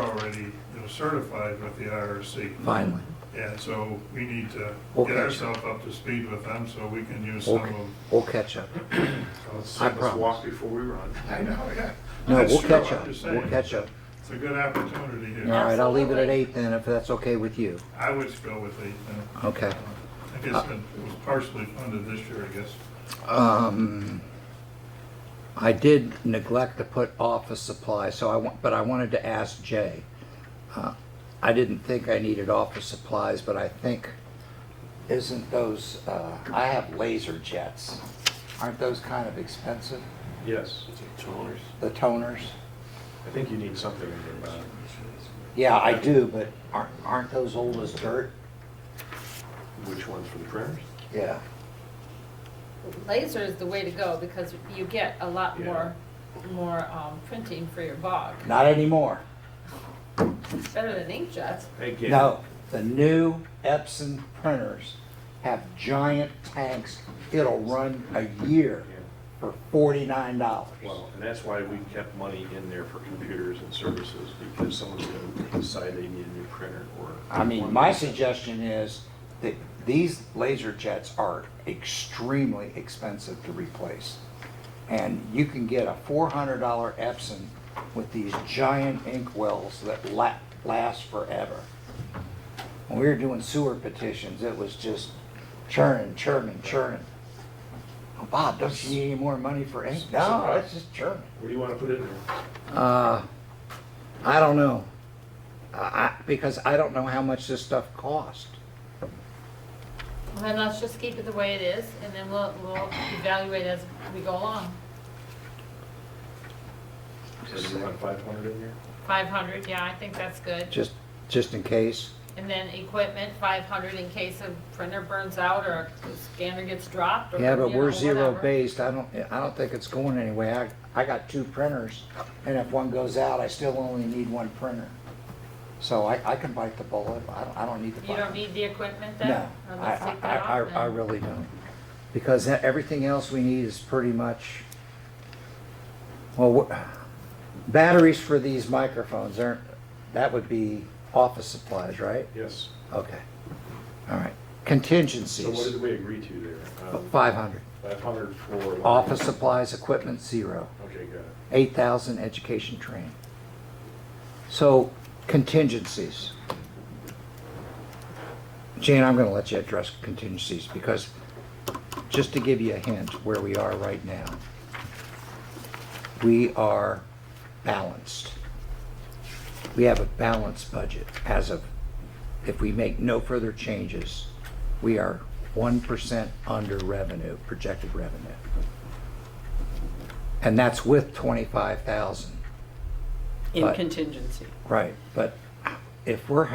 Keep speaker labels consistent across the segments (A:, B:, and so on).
A: already, you know, certified with the IRC.
B: Finally.
A: And so we need to
B: We'll
A: get
B: catch
A: ourselves up to speed with them so we can use some
B: We'll,
A: of.
B: we'll catch up.
C: Let's,
B: I
C: let's walk
B: promise.
C: before we run.
A: I know, yeah.
B: No,
A: That's
B: we'll
A: true,
B: catch
A: I'm
B: up.
A: just
B: We'll
A: saying.
B: catch up.
A: It's a good opportunity
B: All
A: here.
B: right, I'll leave it at
D: Absolutely.
B: eight then, if that's okay with you.
A: I would go with eight then.
B: Okay. Uh,
A: I guess it was partially funded this year, I guess.
B: Um, I did neglect to put office supply, so I want, but I wanted to ask Jay. Uh, I didn't think I needed office supplies, but I think, isn't those, uh, I have laser jets. Aren't those kind of expensive,
C: Yes,
B: the toners?
C: I think you need something uh, in your bag.
B: Yeah, I do, but aren't, aren't those old as dirt?
C: Which ones for the printers?
B: Yeah.
D: Laser is the way to go because you get a lot
C: Yeah.
D: more, more um, printing for your bog.
B: Not anymore.
D: It's better than inkjet.
C: Again.
B: No, the new Epson printers have giant tanks. It'll run a year
C: Yeah.
B: for forty-nine dollars.
C: Well, and that's why we kept money in there for computers and services, because someone's gonna decide they need a new printer or.
B: I mean, my suggestion is that these laser jets are extremely expensive to replace. And you can get a four hundred dollar Epson with these giant ink wells that la- last forever. When we were doing sewer petitions, it was just churning, churning, churning. Oh, Bob, don't you need any more money for ink? No, it's just churning.
C: What do you wanna put in there?
B: Uh, I don't know. I, I- because I don't know how much this stuff cost.
D: Well, Then let's just keep it the way it is and then we'll, we'll evaluate as we go along.
C: So you want five hundred in there?
D: Five hundred, yeah, I think that's good.
B: Just, just in case.
D: And then equipment, five hundred in case a printer burns out or a scanner gets dropped or,
B: Yeah, but
D: you know,
B: we're zero
D: whatever.
B: based. I don't, I don't think it's going anywhere. I, I got two printers and if one goes out, I still only need one printer. So I, I can bite the bullet. I don't, I don't need to buy.
D: You don't need the equipment then?
B: No,
D: Or
B: I,
D: let's
B: I,
D: take
B: I,
D: that off
B: I- I
D: then.
B: really don't. Because that- everything else we need is pretty much, well, wh- batteries for these microphones aren't, that would be office supplies, right?
C: Yes.
B: Okay. All right.
C: So what
B: Contingencies,
C: did we agree to there? Um,
B: five hundred.
C: Five hundred for.
B: Office supplies, equipment, zero.
C: Okay, got it.
B: Eight thousand, education, training. So contingencies. Jane, I'm gonna let you address contingencies because, just to give you a hint where we are right now, we are balanced. We have a balanced budget as of, if we make no further changes, we are one percent under revenue, projected revenue. And that's with twenty-five thousand.
E: In
B: But-
E: contingency.
B: Right, but if we're,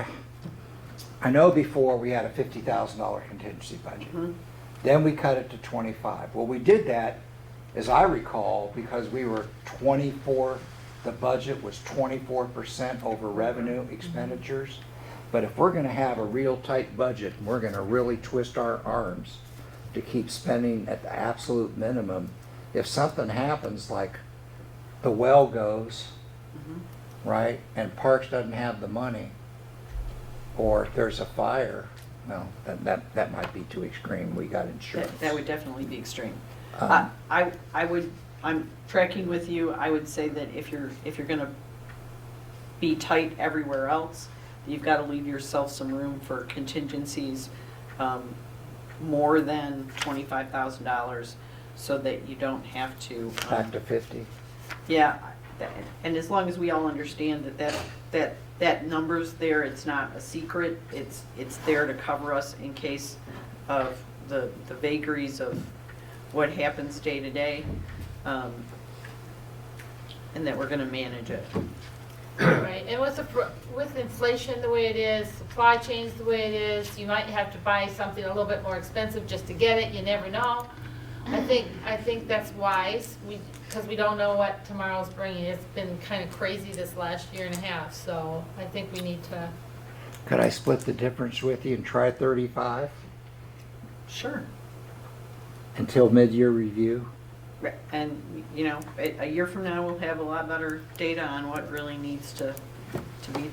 B: I know before we had a fifty thousand dollar contingency budget. Then we cut it to twenty-five. Well, we did that, as I recall, because we were twenty-four, the budget was twenty-four percent over revenue expenditures. But if we're gonna have a real tight budget, and we're gonna really twist our arms to keep spending at the absolute minimum. If something happens, like the well goes,
E: Mm-hmm.
B: right, and Parks doesn't have the money, or if there's a fire, no, that, that, that might be too extreme, we got insurance.
E: That, that would definitely be extreme.
B: Um,
E: I, I- I would, I'm tracking with you, I would say that if you're, if you're gonna be tight everywhere else, you've gotta leave yourself some room for contingencies, um, more than twenty-five thousand dollars, so that you don't have to. um,
B: Back to fifty,
E: Yeah, that- and as long as we all understand that that, that, that number's there, it's not a secret, it's, it's there to cover us in case of the, the vagaries of what happens day to day, um, and that we're gonna manage it.
D: Right, and with, the pro- with inflation the way it is, supply chains the way it is, you might have to buy something a little bit more expensive just to get it, you never know. I think, I think that's wise, we, because we don't know what tomorrow's bringing, it's been kind of crazy this last year and a half, so I think we need to,
B: could I split the difference with you and try thirty-five
E: Sure.
B: until mid-year review?
E: And, you know, a, a year from now, we'll have a lot better data on what really needs to, to be